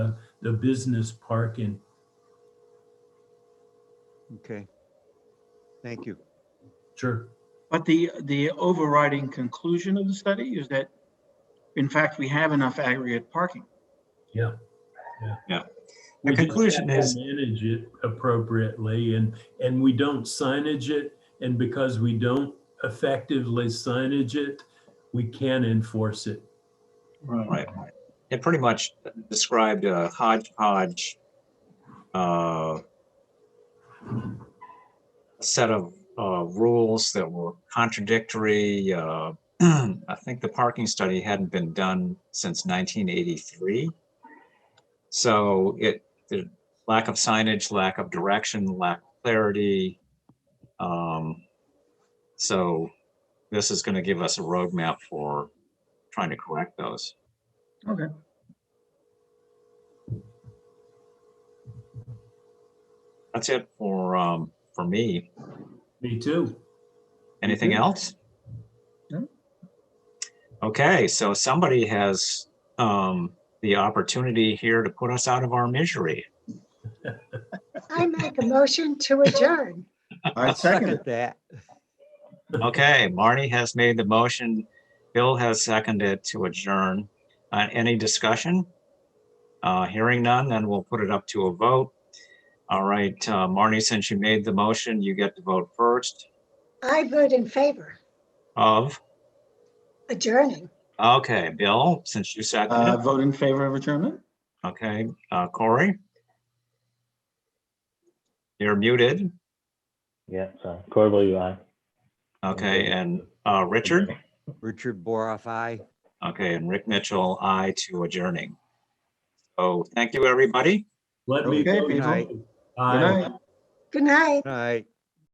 the business parking. Okay. Thank you. Sure. But the, the overriding conclusion of the study is that, in fact, we have enough aggregate parking. Yeah. Yeah. We The just conclusion have to is- Manage it appropriately and, and we don't signage it. And because we don't effectively signage it, we can enforce it. Right. It pretty much described a hodgepodge uh, set of uh, rules that were contradictory. uh, I think the parking study hadn't been done since 1983. So it, the lack of signage, lack of direction, lack of clarity. Um, So this is going to give us a roadmap for trying to correct those. That's it for, um, for me. Me too. Anything Mhm. else? No. Okay, so somebody has, um, the opportunity here to put us out of our misery. I make a motion to adjourn. I second it. that. Okay, Marnie has made the motion. Bill has seconded to adjourn. Uh, any discussion? Uh, hearing none, then we'll put it up to a vote. All right, uh, Marnie, since you made the motion, you get to vote first I vote in favor of, adjourning. okay, Bill, since you Uh, seconded, vote in favor of adjournment? okay, uh, Corey? You're muted. Yeah, so Corey, will you aye? Okay, and uh, Richard? Richard Boroff, aye. Okay, and Rick Mitchell, I to adjourning. So thank you, everybody. Let me. Okay, vote people. no. Good Good Aye. night. All right.